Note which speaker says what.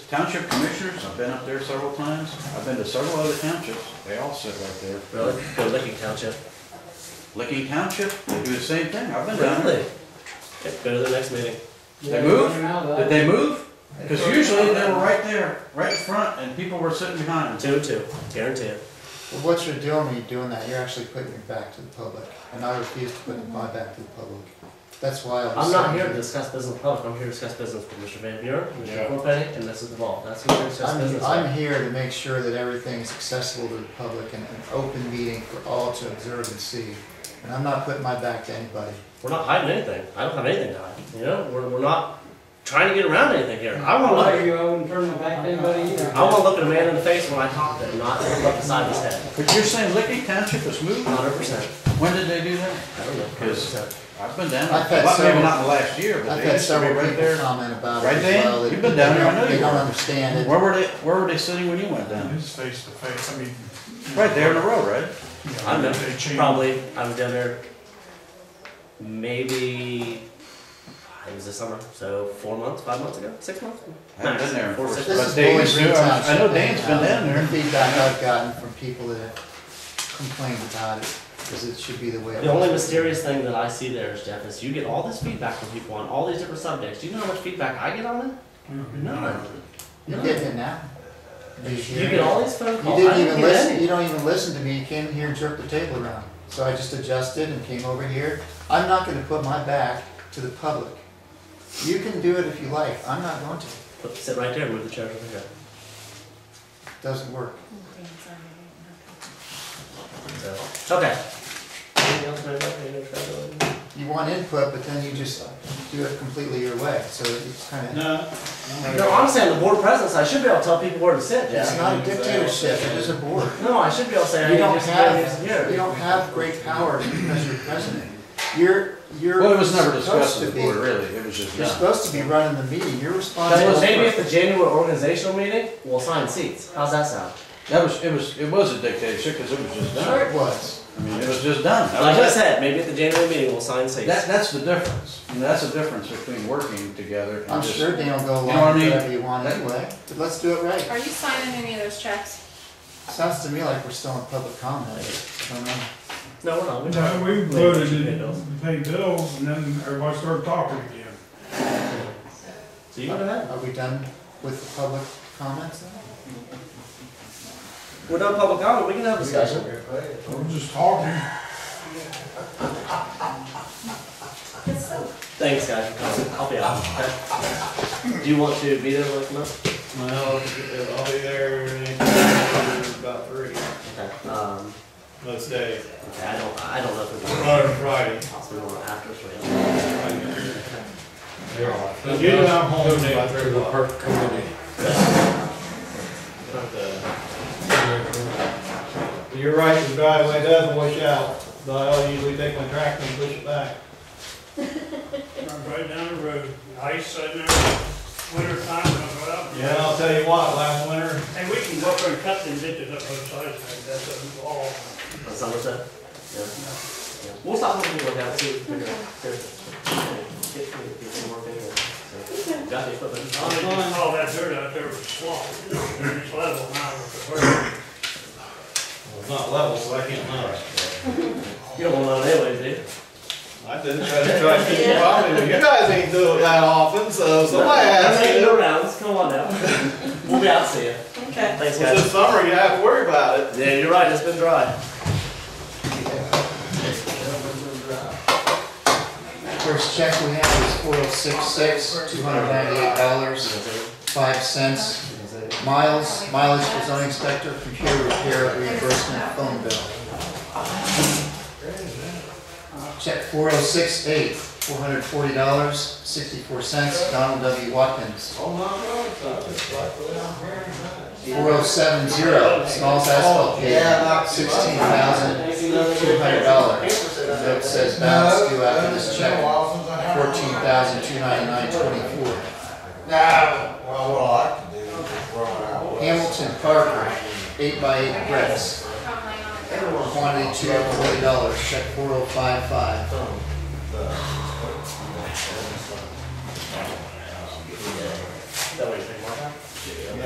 Speaker 1: Township commissioners, I've been up there several times. I've been to several other townships. They all sit right there.
Speaker 2: Really? Go Licking Township.
Speaker 1: Licking Township, they do the same thing. I've been down there.
Speaker 2: Okay, Go to the next meeting.
Speaker 1: They moved? Did they move? Because usually they were right there, right in front, and people were sitting behind them.
Speaker 2: Two and two, guarantee it.
Speaker 3: Well, What you're doing when you're doing that, you're actually putting it back to the public, and I refuse to put it my back to the public. That's why I was.
Speaker 2: I'm not here to
Speaker 3: saying-
Speaker 2: discuss business with public, I'm here to discuss business with Mr. Van Buren, Mr.
Speaker 4: Yeah.
Speaker 2: Corpetti, and Mrs. DeValle. That's who we're discussing
Speaker 3: I'm,
Speaker 2: business
Speaker 3: I'm
Speaker 2: with.
Speaker 3: here to make sure that everything is accessible to the public and an open meeting for all to observe and see. And I'm not putting my back to anybody.
Speaker 2: We're not hiding anything. I don't have anything to hide, you know? We're, we're not trying to get around anything here. I wanna look,
Speaker 5: you, I wouldn't turn my back to anybody either.
Speaker 2: I wanna look at a man in the face when I talk to him, not look beside his head.
Speaker 1: But you're saying Licking Township was moved?
Speaker 2: Hundred percent.
Speaker 1: When did they do that?
Speaker 2: I don't know.
Speaker 1: 'Cause-
Speaker 2: 100%.
Speaker 1: I've been down
Speaker 3: I've had
Speaker 1: there. Well, Maybe
Speaker 3: several-
Speaker 1: not in the last year, but
Speaker 3: I've
Speaker 1: they
Speaker 3: had
Speaker 1: used to be
Speaker 3: several
Speaker 1: right
Speaker 3: people
Speaker 1: there.
Speaker 3: comment about it
Speaker 1: Right,
Speaker 3: as
Speaker 1: Dan?
Speaker 3: well. that
Speaker 1: You've been down there, I know
Speaker 3: They
Speaker 1: you
Speaker 3: don't
Speaker 1: were.
Speaker 3: understand it.
Speaker 1: Where were they, where were they sitting when you went down?
Speaker 4: It's face to face, I mean.
Speaker 1: Right there in the road, right?
Speaker 2: I don't
Speaker 4: They
Speaker 2: know,
Speaker 4: change.
Speaker 2: probably, I was down there maybe, it was this summer, so four months, five months ago, six months?
Speaker 1: I haven't been there in
Speaker 2: Four, six
Speaker 1: four-
Speaker 2: months.
Speaker 3: This
Speaker 1: But
Speaker 3: is
Speaker 1: they
Speaker 3: Bowling
Speaker 1: do,
Speaker 3: Green
Speaker 1: I'm- I know
Speaker 3: Township,
Speaker 1: Dan's been
Speaker 3: and, uh,
Speaker 1: down there.
Speaker 3: The feedback I've gotten from people that complained about it, because it should be the way. it
Speaker 2: The only
Speaker 3: was.
Speaker 2: mysterious thing that I see there is, Jeff, is you get all this feedback from people on all these different subjects. Do you know how much feedback I get on it? No.
Speaker 3: You're getting it now. You
Speaker 2: You get all these phone
Speaker 3: You
Speaker 2: calls. I
Speaker 3: didn't
Speaker 2: don't
Speaker 3: even
Speaker 2: get
Speaker 3: listen,
Speaker 2: any.
Speaker 3: you don't even listen to me, you came here and jerked the table around. So I just adjusted and came over here. I'm not gonna put my back to the public. You can do it if you like, I'm not going to. It
Speaker 2: Look, Sit right there, move the chair over here.
Speaker 3: Doesn't work.
Speaker 2: So, okay. Anything else, man? Anything else, Trevor?
Speaker 3: You want input, but then you just do it completely your way, so it's kinda,
Speaker 4: No.
Speaker 2: No, honestly, on the board presence, I should be able to tell people where to sit,
Speaker 3: it's
Speaker 2: Jeff.
Speaker 3: not a dictatorship, it is a board.
Speaker 2: No, I should be able to say,
Speaker 3: You
Speaker 2: hey,
Speaker 3: don't
Speaker 2: this is where this
Speaker 3: have,
Speaker 2: is
Speaker 3: you
Speaker 2: here.
Speaker 3: don't have great power because you're president. You're, you're.
Speaker 1: Well, it was never discussed
Speaker 3: supposed to
Speaker 1: at the
Speaker 3: be-
Speaker 1: board, really. It was just
Speaker 3: You're
Speaker 1: done.
Speaker 3: supposed to be running the meeting, you're
Speaker 2: That's
Speaker 3: responsible.
Speaker 2: what- Maybe at the January organizational meeting, we'll assign seats. How's that sound?
Speaker 1: That was, it was, it was a dictatorship because it was just
Speaker 3: Sure
Speaker 1: done.
Speaker 3: it was.
Speaker 1: I mean, it was just done. That
Speaker 2: Like I
Speaker 1: was it.
Speaker 2: said, maybe at the January meeting, we'll assign seats.
Speaker 1: That, that's the difference. And that's the difference between working together
Speaker 3: I'm
Speaker 1: and just.
Speaker 3: sure Dan will go
Speaker 1: You know what I
Speaker 3: along with
Speaker 1: mean?
Speaker 3: whatever you want
Speaker 1: That-
Speaker 3: anyway, but let's do it right.
Speaker 6: Are you signing any of those checks?
Speaker 3: Sounds to me like we're still in public comment. I don't know.
Speaker 2: No, we're not. We're
Speaker 4: No, we
Speaker 2: Maybe
Speaker 4: voted
Speaker 2: should pay bills.
Speaker 4: to pay bills and then everybody started talking again.
Speaker 2: So you go ahead.
Speaker 3: Are we done with the public comments?
Speaker 2: We're done public comment, we can have a discussion.
Speaker 4: We're just talking.
Speaker 2: Thanks, guys, for coming. I'll be out. Okay. Do you want to be there with me?
Speaker 7: Well, I'll be there anytime about three,
Speaker 2: Okay. Um,
Speaker 7: most days,
Speaker 2: okay, I don't, I don't know if it's
Speaker 7: not on Friday.
Speaker 2: possible or after three.
Speaker 7: But usually I'm home by three o'clock. But, uh, You're right, the driveway does wash out, but I'll usually take my tractor and push it back.
Speaker 8: Right down the road, ice in there, winter time, I'm out.
Speaker 7: Yeah, and I'll tell you what, last winter,
Speaker 8: And we can go up there and cut them ditches up both sides, like that's a wall.
Speaker 2: On Somerset? Yeah. Yeah. We'll stop looking at that, see if we figure it out. Here. Get some- get some more figures. So, Got the equipment.
Speaker 8: I mean, all that dirt out there was swamp, it's level now with the bird.
Speaker 7: well, it's not level, so I can't mount it.
Speaker 2: You don't want to anyway, do you?
Speaker 7: I didn't try to try to keep you on, but you guys ain't do it that often, so somebody has
Speaker 2: Make
Speaker 7: to.
Speaker 2: no rounds, come on now. We'll be out, see you.
Speaker 6: Okay.
Speaker 2: Thanks,
Speaker 7: Well,
Speaker 2: guys.
Speaker 7: This summer, you have to worry about it.
Speaker 2: Yeah, you're right, it's been dry.
Speaker 3: First check we have is four oh six six, two hundred ninety-eight dollars, five cents. Miles, mileage for zoning inspector, computer repair, reimbursement, phone bill. Check four oh six eight, four hundred forty dollars, sixty-four cents, Donald W. Watkins.
Speaker 7: Oh, my God, so I just like the way I'm hearing that.
Speaker 3: 4070, small asphalt pavement, sixteen thousand two hundred dollars. Note says balance due after this check, fourteen thousand two ninety-nine twenty-four.
Speaker 9: No, well, what I like to do is just roll it out.
Speaker 3: Hamilton Parker, eight by eight bricks,
Speaker 6: Oh
Speaker 3: quantity two hundred forty dollars, check four oh five five.
Speaker 2: That way you think, Mark.
Speaker 7: Yeah.